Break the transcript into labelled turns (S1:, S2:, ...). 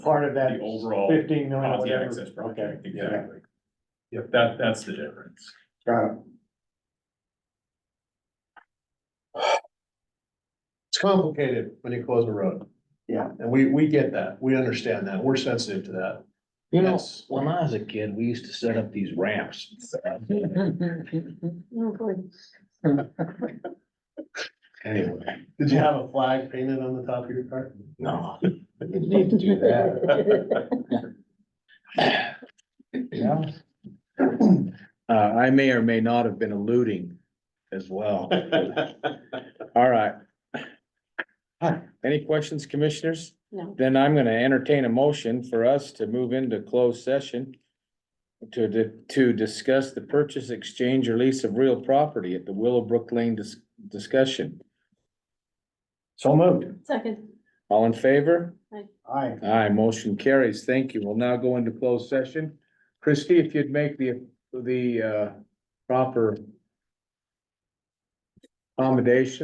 S1: part of that
S2: The overall
S1: fifteen million,
S2: Ponzi
S1: whatever.
S2: access project,
S1: Okay, yeah.
S2: exactly. Yep, that, that's the difference.
S1: Got it.
S3: It's complicated when you close a road.
S1: Yeah.
S3: And we, we get that. We understand that. We're sensitive to that.
S4: You know,
S3: Yes.
S4: when I was a kid, we used to set up these ramps. Anyway,
S3: Did you have a flag painted on the top of your car?
S4: no. Didn't need to do that.
S1: Yeah.
S4: Uh, I may or may not have been alluding as well. All right. Any questions, commissioners?
S5: No.
S4: Then I'm gonna entertain a motion for us to move into closed session to, di- to discuss the purchase, exchange, or lease of real property at the Willowbrook Lane dis- discussion.
S1: So moved.
S5: Second,
S4: All in favor?
S1: Aye.
S4: Aye, motion carries. Thank you. We'll now go into closed session. Christie, if you'd make the, the, uh, proper accommodation.